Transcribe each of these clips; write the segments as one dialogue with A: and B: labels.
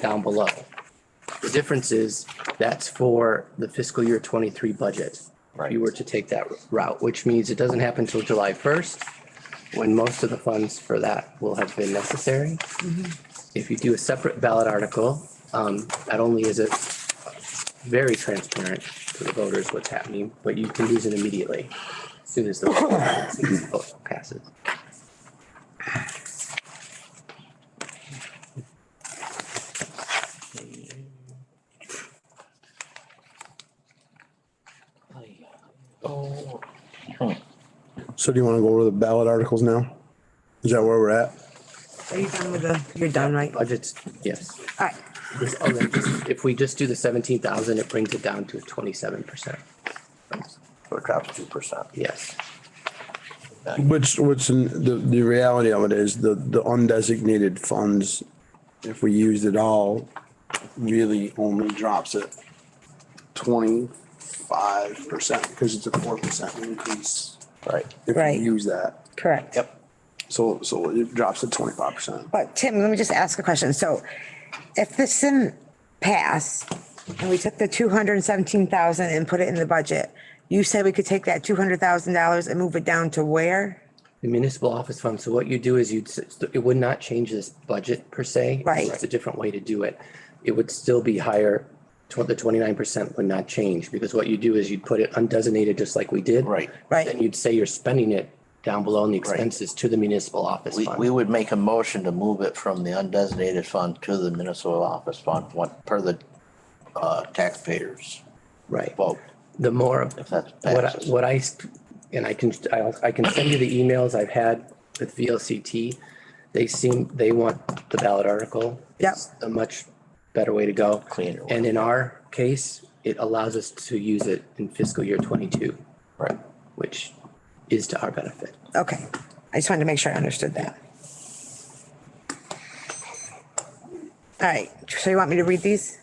A: down below. The difference is that's for the fiscal year twenty-three budget. If
B: Right.
A: you were to take that route, which means it doesn't happen till July first, when most of the funds for that will have been necessary. If you do a separate ballot article, um, not only is it very transparent to the voters what's happening, but you can use it immediately, as soon as the as soon as the vote passes.
C: So do you want to go over the ballot articles now? Is that where we're at?
D: Are you done with the, you're done, right? All
A: Budgets, yes.
D: right,
A: This- oh, then just- If we just do the seventeen thousand, it brings it down to twenty-seven percent.
B: So it drops two percent.
A: Yes,
C: Which, which in- the, the reality of it is the, the undesignated funds, if we used it all, really only drops it twenty-five percent because it's a four percent increase
B: Right.
C: if
D: Right.
C: we use that.
D: correct.
B: Yep.
C: So, so it drops it twenty-five percent.
D: But Tim, let me just ask a question. So if this didn't pass and we took the two hundred and seventeen thousand and put it in the budget, you said we could take that two hundred thousand dollars and move it down to where?
A: the municipal office fund. So what you do is you'd, s- it would not change this budget per se.
D: Right.
A: It's a different way to do it. It would still be higher, tw- the twenty-nine percent would not change because what you do is you'd put it undesignated just like we did.
B: Right.
D: Right.
A: Then you'd say you're spending it down below in the expenses to the municipal office
B: We, we
A: fund.
B: would make a motion to move it from the undesignated fund to the municipal office fund, what, per the, uh, taxpayers
A: Right.
B: vote.
A: The more,
B: that's
A: what, I-
B: passes.
A: what I, sp- and I can, I'll- I can send you the emails I've had with VLCT. They seem, they want the ballot article.
D: Yep.
A: It's A much better way to go.
B: Cleaner way.
A: And in our case, it allows us to use it in fiscal year twenty-two,
B: Right.
A: which is to our benefit.
D: Okay, I just wanted to make sure I understood that. All right, so you want me to read these?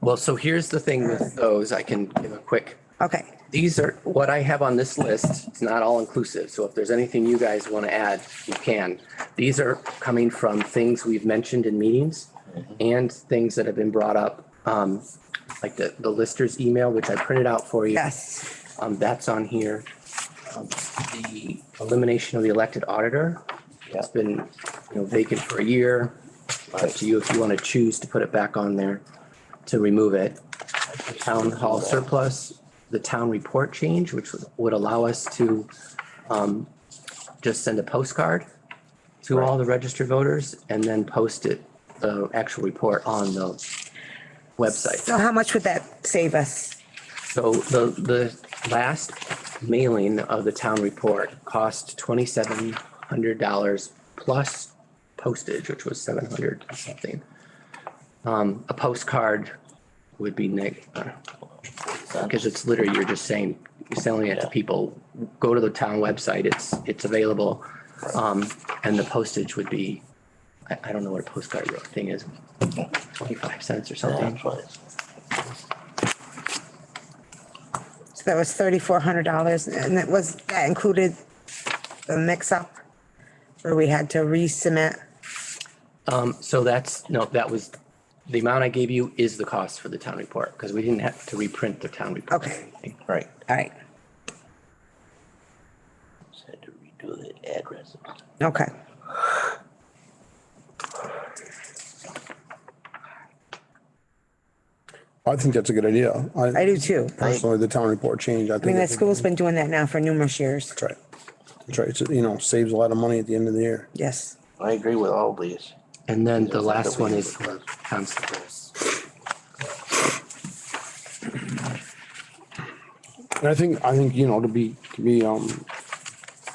A: Well, so here's the thing with those, I can give a quick
D: Okay,
A: these are what I have on this list. It's not all inclusive. So if there's anything you guys want to add, you can. These are coming from things we've mentioned in meetings and things that have been brought up, um, like the, the lister's email, which I printed out for you.
D: yes,
A: Um, that's on here. Um, The elimination of the elected auditor. It's been, you know, vacant for a year. It's Up to you if you want to choose to put it back on there to remove it. The Town hall surplus, the town report change, which would- would allow us to um, just send a postcard to all the registered voters and then post it, the actual report on the website.
D: so how much would that save us?
A: So the, the last mailing of the town report cost twenty-seven hundred dollars plus postage, which was seven hundred or something. Um, a postcard would be neg, uh, because it's literally, you're just saying, you're selling it to people. Go to the town website, it's, it's available. Um, and the postage would be, I, I don't know what a postcard thing is, twenty-five cents or something.
B: That's what it is.
D: So that was thirty-four hundred dollars and it was, that included the mix-up where we had to resubmit.
A: Um, so that's, no, that was, the amount I gave you is the cost for the town report, because we didn't have to reprint the town report.
D: Okay.
B: Right.
D: All right,
B: Just Had to redo the addresses.
D: okay.
C: I think that's a good idea.
D: I do too. I
C: Personally, the town report change, I think.
D: mean, the
C: it's a-
D: school's been doing that now for numerous years.
C: That's right. That's right. It's, you know, saves a lot of money at the end of the year.
D: Yes,
B: I agree with all these.
A: And then the last one is for constables.
C: And I think, I think, you know, to be, to be, um,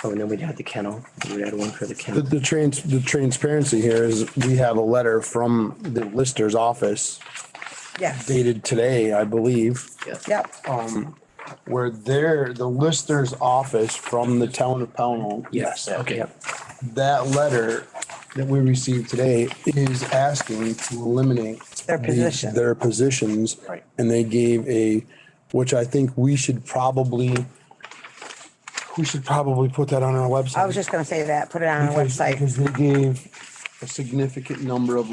A: Oh, and then we'd add the kennel, we'd add one for the
C: the,
A: kennel.
C: the trans, the transparency here is we have a letter from the lister's office
D: yes,
C: dated today, I believe,
A: Yeah.
D: yep,
C: where they're, the lister's office from the town of Pownell.
A: Yes, okay.
C: That letter that we received today is asking to eliminate.
D: Their
C: the-
D: position.
C: Their positions.
B: Right.
C: And they gave a, which I think we should probably, we should probably put that on our website.
D: I was just gonna say that, put it on our
C: Because-
D: website.
C: Because they gave a significant number of